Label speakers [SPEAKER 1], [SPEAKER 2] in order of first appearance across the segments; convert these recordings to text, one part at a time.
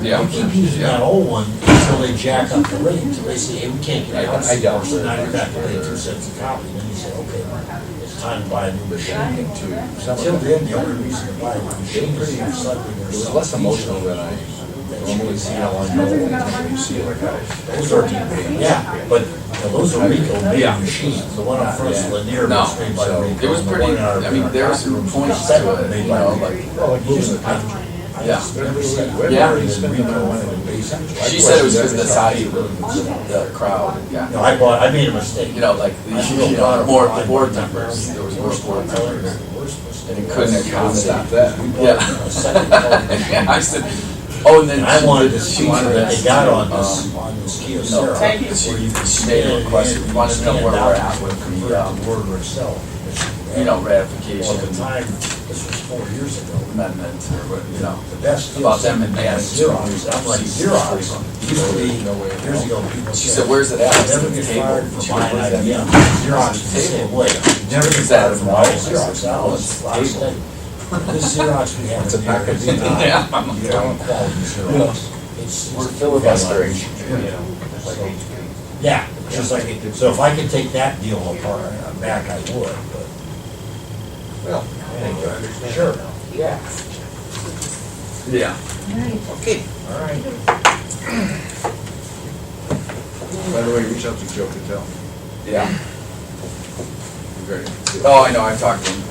[SPEAKER 1] Yeah.
[SPEAKER 2] We keep using that old one until they jack up the rate, until they say, hey, we can't get ours.
[SPEAKER 1] I doubt
[SPEAKER 2] So now
[SPEAKER 1] that.
[SPEAKER 2] you're back to eighteen cents a copy, and then you say, okay, it's time to buy a new
[SPEAKER 1] But
[SPEAKER 2] machine.
[SPEAKER 1] then you get to some
[SPEAKER 2] Until
[SPEAKER 1] of it,
[SPEAKER 2] then, the only reason to buy a machine is if suddenly
[SPEAKER 1] it
[SPEAKER 2] there's
[SPEAKER 1] was
[SPEAKER 2] something.
[SPEAKER 1] less emotional than I normally see on
[SPEAKER 2] Those are, yeah, but those are Rico
[SPEAKER 1] Yeah.
[SPEAKER 2] made machines, the one on First Lanier
[SPEAKER 1] No,
[SPEAKER 2] was made by
[SPEAKER 1] so
[SPEAKER 2] Rico.
[SPEAKER 1] it was
[SPEAKER 2] and the
[SPEAKER 1] pretty,
[SPEAKER 2] one out of
[SPEAKER 1] I mean, there were some points to
[SPEAKER 2] Second
[SPEAKER 1] it,
[SPEAKER 2] made
[SPEAKER 1] you
[SPEAKER 2] by
[SPEAKER 1] know,
[SPEAKER 2] Rico.
[SPEAKER 1] like,
[SPEAKER 3] Well, like you
[SPEAKER 2] Moving
[SPEAKER 3] said,
[SPEAKER 2] the country. I
[SPEAKER 1] Yeah.
[SPEAKER 2] just never seen it.
[SPEAKER 1] Yeah.
[SPEAKER 2] Where is Rico one of the basic-
[SPEAKER 1] she said it was because of the size of the, the crowd, yeah.
[SPEAKER 2] No, I bought, I made a mistake.
[SPEAKER 1] You know, like, the, you know, more board members, there was more board members, and it couldn't accommodate that, yeah. Yeah, I said, oh, and then.
[SPEAKER 2] And I wanted
[SPEAKER 1] she-
[SPEAKER 2] this
[SPEAKER 1] she
[SPEAKER 2] feature
[SPEAKER 1] wanted
[SPEAKER 2] that they
[SPEAKER 1] us
[SPEAKER 2] got
[SPEAKER 1] to,
[SPEAKER 2] on this,
[SPEAKER 1] um,
[SPEAKER 2] on this
[SPEAKER 1] No,
[SPEAKER 2] Kyocera.
[SPEAKER 1] thank you.
[SPEAKER 2] where you can
[SPEAKER 1] She made a
[SPEAKER 2] stand
[SPEAKER 1] request.
[SPEAKER 2] in,
[SPEAKER 1] We wanted to know
[SPEAKER 2] stand
[SPEAKER 1] where
[SPEAKER 2] out,
[SPEAKER 1] we're at with the,
[SPEAKER 2] convert
[SPEAKER 1] um,
[SPEAKER 2] the Word itself.
[SPEAKER 1] you know,
[SPEAKER 2] Well, at the
[SPEAKER 1] ratification
[SPEAKER 2] time, this was four years ago,
[SPEAKER 1] amendment or what, you know.
[SPEAKER 2] the best.
[SPEAKER 1] About
[SPEAKER 2] deals
[SPEAKER 1] them and
[SPEAKER 2] they had
[SPEAKER 1] Dan's
[SPEAKER 2] Xerox, I'm like,
[SPEAKER 1] too.
[SPEAKER 2] Xerox, used to be,
[SPEAKER 1] No way.
[SPEAKER 2] years ago, people said.
[SPEAKER 1] She said, "Where's it at?" I said,
[SPEAKER 2] Never get
[SPEAKER 1] "Table."
[SPEAKER 2] fired for
[SPEAKER 1] She
[SPEAKER 2] buying
[SPEAKER 1] goes, "Where's that
[SPEAKER 2] idea,
[SPEAKER 1] at?"
[SPEAKER 2] Xerox is the
[SPEAKER 1] "Table."
[SPEAKER 2] same way, never
[SPEAKER 1] She
[SPEAKER 2] get
[SPEAKER 1] said,
[SPEAKER 2] fired for
[SPEAKER 1] "No."
[SPEAKER 2] buying
[SPEAKER 1] I said,
[SPEAKER 2] Xerox, that
[SPEAKER 1] "No,
[SPEAKER 2] was
[SPEAKER 1] it's
[SPEAKER 2] last
[SPEAKER 1] table."
[SPEAKER 2] thing. This Xerox we have
[SPEAKER 1] It's a
[SPEAKER 2] in here is
[SPEAKER 1] package.
[SPEAKER 2] not,
[SPEAKER 1] Yeah, I'm like,
[SPEAKER 2] you know, quality Xerox. It's-
[SPEAKER 1] We're
[SPEAKER 2] it's-
[SPEAKER 1] filibustering.
[SPEAKER 2] You know, so- Yeah, just like, it- so if I could take that deal apart, uh, back, I would, but.
[SPEAKER 4] Well,
[SPEAKER 2] Anyway, Sure.
[SPEAKER 4] yeah,
[SPEAKER 1] Yeah.
[SPEAKER 4] okay.
[SPEAKER 2] All right.
[SPEAKER 3] By the way, reach out to Joe Cattell.
[SPEAKER 1] Yeah.
[SPEAKER 3] Very-
[SPEAKER 1] Oh, I know, I've talked to him.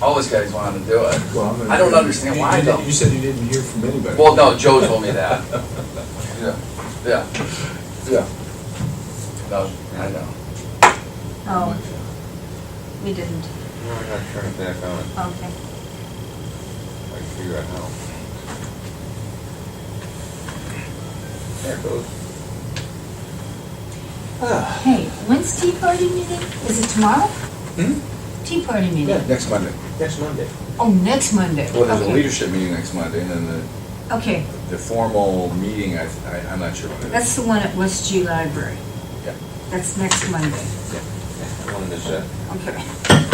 [SPEAKER 1] All those guys wanted to do it.
[SPEAKER 3] Well, I'm gonna-
[SPEAKER 1] I don't understand
[SPEAKER 3] You-
[SPEAKER 1] why,
[SPEAKER 3] you
[SPEAKER 1] though.
[SPEAKER 3] didn't- You said you didn't hear from anybody.
[SPEAKER 1] Well, no, Joe told me that. Yeah, yeah, yeah. No, I know.
[SPEAKER 5] Oh, we didn't,
[SPEAKER 4] No, I'm not turning back on,
[SPEAKER 5] okay.
[SPEAKER 4] I figure out how. There it goes. Ah,
[SPEAKER 5] Hey, when's tea party meeting? Is it tomorrow?
[SPEAKER 4] Hmm?
[SPEAKER 5] Tea party meeting?
[SPEAKER 3] Yeah, next Monday.
[SPEAKER 4] next Monday.
[SPEAKER 5] Oh, next Monday.
[SPEAKER 3] Well, there's a
[SPEAKER 5] Okay.
[SPEAKER 3] leadership meeting next Monday, and then the,
[SPEAKER 5] Okay,
[SPEAKER 3] the formal meeting, I, I, I'm not sure what it is.
[SPEAKER 5] that's the one at West G Library.
[SPEAKER 3] Yeah.
[SPEAKER 5] That's next Monday,
[SPEAKER 4] I wanted to say,
[SPEAKER 5] okay.